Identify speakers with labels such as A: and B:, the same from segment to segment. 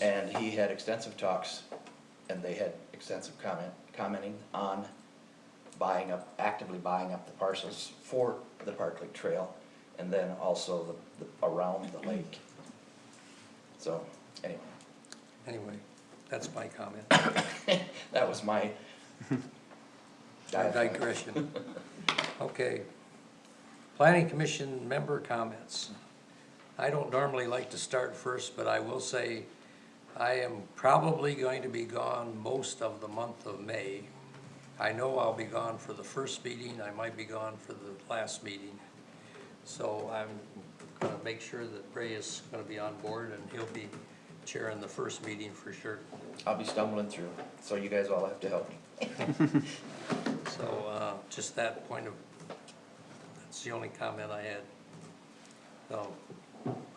A: And he had extensive talks, and they had extensive comment, commenting on buying up, actively buying up the parcels for the Park Lake Trail, and then also the, the, around the lake. So, anyway,
B: Anyway, that's my comment,
A: that was my.
B: My
A: diatribe.
B: digression. Okay. Planning Commission member comments. I don't normally like to start first, but I will say I am probably going to be gone most of the month of May. I know I'll be gone for the first meeting, I might be gone for the last meeting. So I'm gonna make sure that Ray is gonna be on board and he'll be chairing the first meeting for sure.
A: I'll be stumbling through, so you guys all have to help me.
B: So, uh, just that point of, that's the only comment I had. So,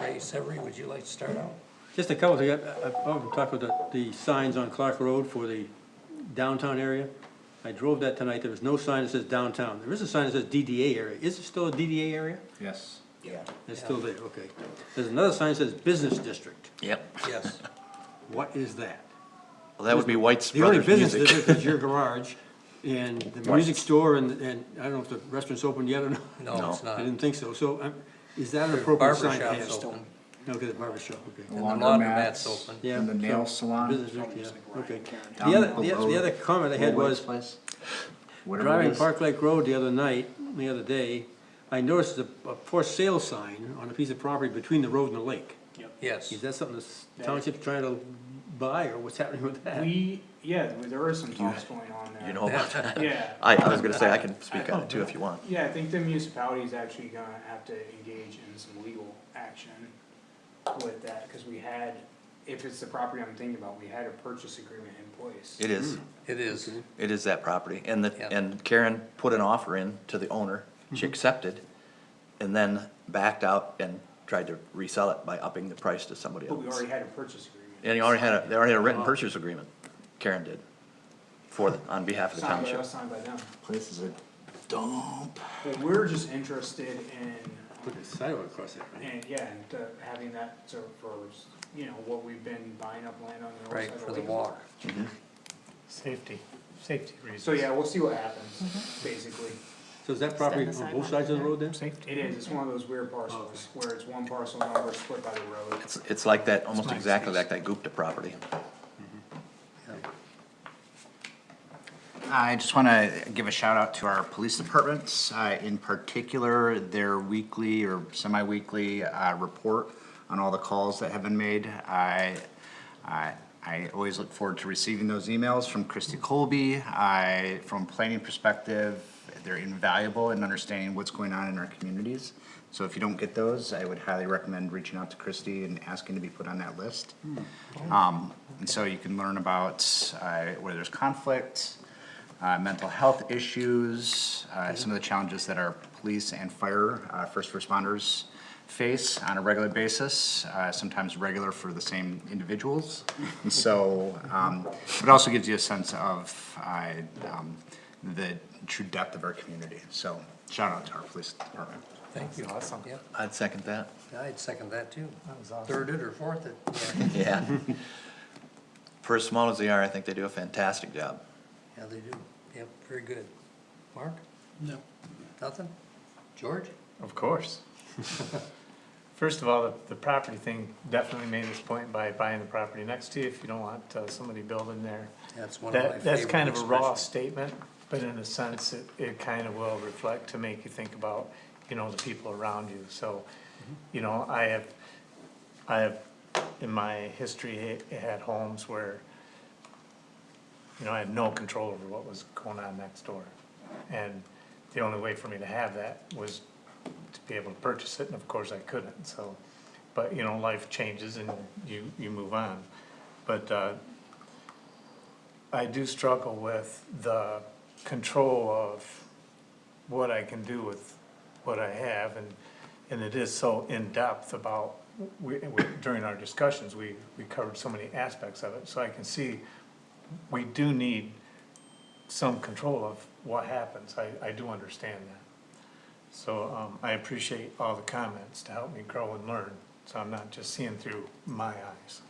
B: Ray Severie, would you like to start out?
C: Just a couple, things. I- I've often talked about the, the signs on Clark Road for the downtown area. I drove that tonight, there was no sign that says downtown, there is a sign that says DDA area, is it still a DDA area?
D: Yes.
A: Yeah.
C: It's still there, okay. There's another sign that says business district,
D: Yep.
B: Yes,
C: what is that?
D: Well, that would be White's
C: The only
D: Brothers
C: business
D: Music.
C: district is your garage, and the music store, and, and I don't know if the restaurant's open yet or not.
B: no, it's
C: I
B: not.
C: didn't think so, so, um, is that an appropriate sign to
B: barber
C: have?
B: shop's open.
C: No, okay, the barber shop, okay.
B: And the laundromat's open.
C: Yeah,
E: And the nail
C: so,
E: salon.
C: business district, yeah, okay.
E: Down
C: The other, the
E: below
C: other- the other comment I had was,
E: Place? Whatever it
C: driving
E: is.
C: Park Lake Road the other night, the other day, I noticed a, a for sale sign on a piece of property between the road and the lake.
B: Yes,
C: Is that something the township's trying to buy, or what's happening with that?
F: We, yeah, there is some talks going on there.
D: You know about that?
F: Yeah,
D: I, I was gonna say, I can speak on it too if you want.
F: yeah, I think the municipality's actually gonna have to engage in some legal action with that, cause we had, if it's the property I'm thinking about, we had a purchase agreement in place.
D: It is,
B: it is.
D: it is that property. And
B: Yeah.
D: the, and Karen put an offer in to the owner. She accepted and then backed out and tried to resell it by upping the price to somebody
F: But we
D: else.
F: already had Uh-huh. a purchase agreement.
D: And he already had a, they already had a written purchase agreement. Karen did. For, the- on behalf of the
F: Signed by
D: township.
F: us, signed by them,
E: Place is a dump.
F: but we're just interested in,
C: Put a sidewalk across there, right?
F: and, yeah, and uh, having that to, for, you know, what we've been buying up land on the north
B: Right,
F: side of
B: for the
F: Lake.
B: walk.
G: Safety, safety reasons.
F: So, yeah, we'll see what happens,
B: Mm-hmm.
F: basically.
C: So is that property
G: the
C: on both sides of the road then?
G: Safety.
F: It is, it's one of those weird parcels, where it's one parcel number split by the road.
D: It's, it's like that, almost
G: It's my
D: exactly like
G: excuse.
D: that Gupta property.
E: I just want to give a shout out to our police departments, uh, in particular, their weekly or semi-weekly, uh, report on all the calls that have been made. I, I, I always look forward to receiving those emails from Christy Colby. I, from planning perspective, they're invaluable in understanding what's going on in our communities. So if you don't get those, I would highly recommend reaching out to Christy and asking to be put on that list. Um, and so you can learn about, uh, where there's conflict, uh, mental health issues, uh, some of the challenges that our police and fire, uh, first responders face on a regular basis, uh, sometimes regular for the same individuals. And so, um, it also gives you a sense of, uh, um, the true depth of our community. So shout out to our police department.
B: Thank you. Awesome. Yeah,
D: I'd second that.
B: I'd second that too.
G: That was awesome.
B: Third it or fourth it. yeah.
D: Yeah. For as small as they are, I think they do a fantastic job.
B: Yeah, they do. Yep, very good. Mark? No. Nothing? George?
G: Of course. First of all, the, the property thing definitely made this point by buying the property next to you if you don't want uh, somebody building there.
B: That's one of my
G: That, that's
B: favorite
G: kind of a raw
B: expressions.
G: statement, but in a sense, it, it kind of will reflect to make you think about, you know, the people around you. So, you know, I have, I have, in my history, ha- had homes where, you know, I had no control over what was going on next door. And the only way for me to have that was to be able to purchase it, and of course I couldn't, so. But, you know, life changes and you, you move on. But, uh, I do struggle with the control of what I can do with what I have, and, and it is so in-depth about, we, we- during our discussions, we, we covered so many aspects of it, so I can see we do need some control of what happens, I, I do understand that. So, um, I appreciate all the comments to help me grow and learn, so I'm not just seeing through my eyes.